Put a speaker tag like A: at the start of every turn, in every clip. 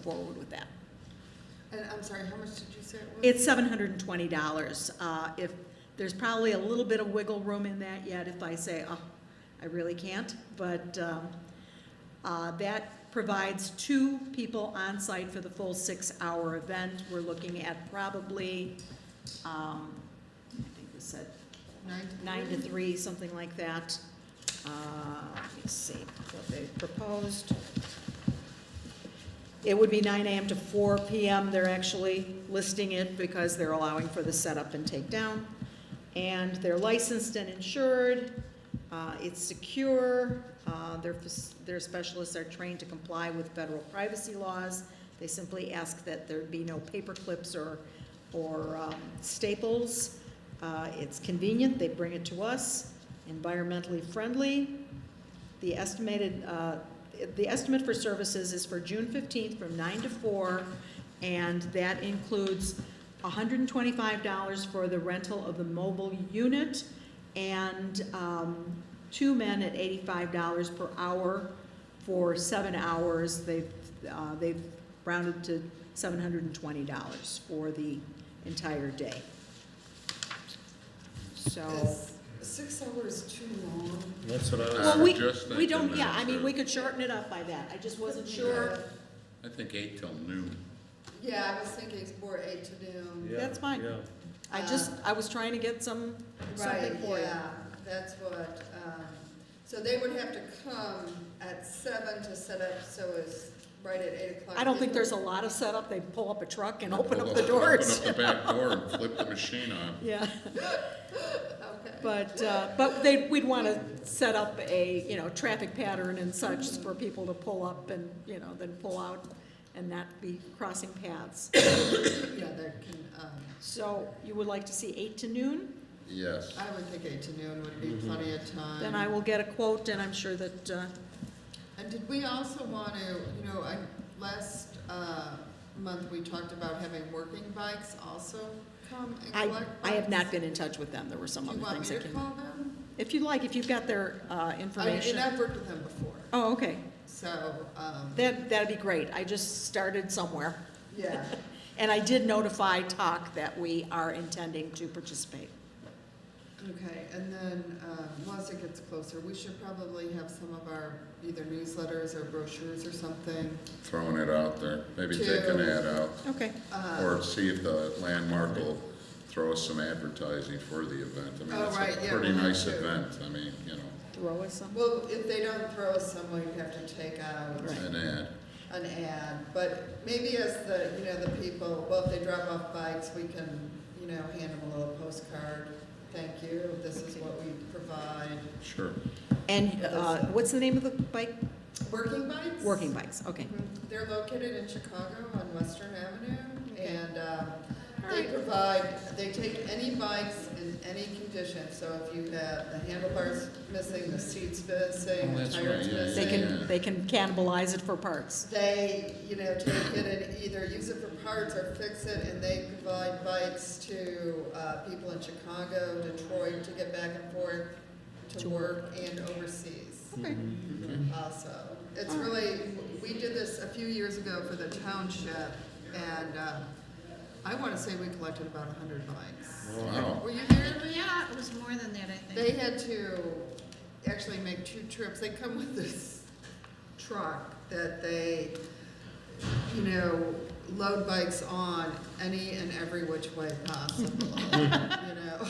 A: forward with that.
B: And I'm sorry, how much did you say it was?
A: It's seven hundred and twenty dollars. Uh, if, there's probably a little bit of wiggle room in that yet if I say, oh, I really can't. But, um, uh, that provides two people on site for the full six-hour event. We're looking at probably, um, I think we said
B: Nine to
A: nine to three, something like that. Uh, Let's see what they proposed. It would be nine AM to four PM. They're actually listing it because they're allowing for the setup and takedown. And they're licensed and insured. Uh, It's secure. Uh, Their fac- their specialists are trained to comply with federal privacy laws. They simply ask that there be no paper clips or or um, staples. Uh, It's convenient, they bring it to us, environmentally friendly. The estimated, uh, the estimate for services is for June 15th from 9 to 4, and that includes $125 for the rental of the mobile unit and um, two men at $85 per hour for seven hours. They've, uh, they've rounded to $720 for the entire day. So.
B: Is Six hours too long.
C: That's what I
A: Well, we,
C: was just thinking.
A: we don't, yeah, I
C: that's
A: mean,
C: it.
A: we could shorten it up by that, I just wasn't sure.
C: I think eight till noon.
B: Yeah, I was thinking it's more eight to noon.
A: Yeah, That's fine. yeah. I just, I was trying to get some,
B: Right,
A: something for you.
B: yeah, that's what, um, so they would have to come at seven to set up, so it's right at eight o'clock.
A: I don't think there's a lot of setup, they pull up a truck and open up
C: Open
A: the doors.
C: Open up the back door and flip the machine on.
A: Yeah,
B: Okay,
A: but, uh, but they, we'd want to set up a, you know, traffic pattern and such for people to pull up and, you know, then pull out and not be crossing paths.
B: yeah, there can, um,
A: So you would like to see eight to noon?
C: Yes.
B: I would think eight to noon would be plenty of time.
A: Then I will get a quote and I'm sure that, uh,
B: And did we also want to, you know, I, last, uh, month, we talked about having working bikes also come and
A: I,
B: collect
A: I have not
B: bikes.
A: been in touch with them, there were some
B: Do
A: other
B: you want me
A: things
B: to
A: that came.
B: call them?
A: If you'd like, if you've got their uh,
B: I mean,
A: information.
B: and I've worked with them before,
A: Oh, okay.
B: so, um,
A: That, that'd be great. I just started somewhere.
B: yeah,
A: And I did notify TAC that we are intending to participate.
B: okay, and then, um, once it gets closer, we should probably have some of our either newsletters or brochures or something.
C: Throwing it out there. Maybe take an
B: To-
C: ad out.
A: Okay.
B: Uh,
C: Or see if the landmark will throw us some advertising for the event. I
B: Oh,
C: mean,
B: right,
C: it's a
B: yeah,
C: pretty
B: we'll have
C: nice
B: to.
C: event. I mean, you know,
A: Throw us some.
B: Well, if they don't throw some, we have to take out.
A: Right.
C: an ad.
B: an ad, but maybe as the, you know, the people, well, if they drop off bikes, we can, you know, hand them a little postcard. Thank you, this is what we provide.
C: Sure.
A: And uh, what's the name of the bike?
B: Working bikes?
A: Working bikes, okay.
B: Mhm. They're located in Chicago on Western Avenue,
A: Okay.
B: and um,
A: All
B: they
A: right.
B: provide, they take any bikes in any condition. So if you have the handlebars missing, the seats missing,
C: Oh,
B: the
C: that's
B: tires
C: right, yeah, yeah,
A: They
B: missing.
C: Yeah.
A: can, they can cannibalize it for parts.
B: They, you know, take it and either use it for parts or fix it, and they provide bikes to uh, people in Chicago, Detroit, to get back and forth to
A: To
B: work and overseas
A: Okay.
B: also. It's really, we did this a few years ago for the township, and uh, I want to say we collected about a hundred bikes.
C: Wow.
B: Were you there?
D: Yeah, it was more than that, I
B: They
D: think.
B: had to actually make two trips. They come with this truck that they, you know, load bikes on any and every which way possible, you know?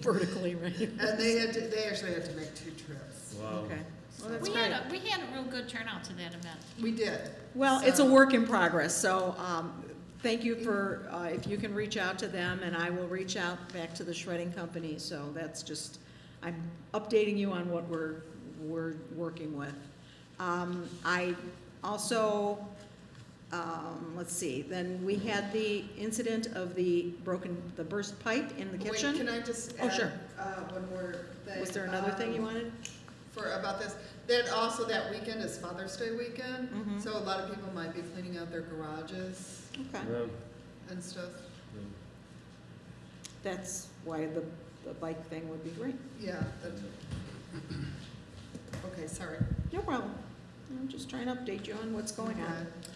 A: Vertically, right?
B: And they had to, they actually had to make two trips.
E: Wow.
A: Okay. Well, that's
D: We
A: great.
D: had, a we had a real good turnout to that event.
B: We did.
A: Well, it's a
B: So-
A: work in progress, so um, thank you for, uh, if you can reach out to them, and I will reach out back to the shredding company, so that's just, I'm updating you on what we're, we're working with. Um, I also, um, let's see, then we had the incident of the broken, the burst pipe in the
B: Wait,
A: kitchen.
B: can I just
A: Oh,
B: add,
A: sure.
B: uh, one more thing?
A: Was there another thing you
B: Um,
A: wanted?
B: for, about this. That also, that weekend is Father's Day weekend,
A: Mhm.
B: um, so a lot of people might be cleaning out their garages
A: Okay,
B: and stuff.
A: that's why the, the bike thing would be great.
B: Yeah, that, okay, sorry.
A: No problem. I'm just trying to update you on Um, what's going on.
B: Okay.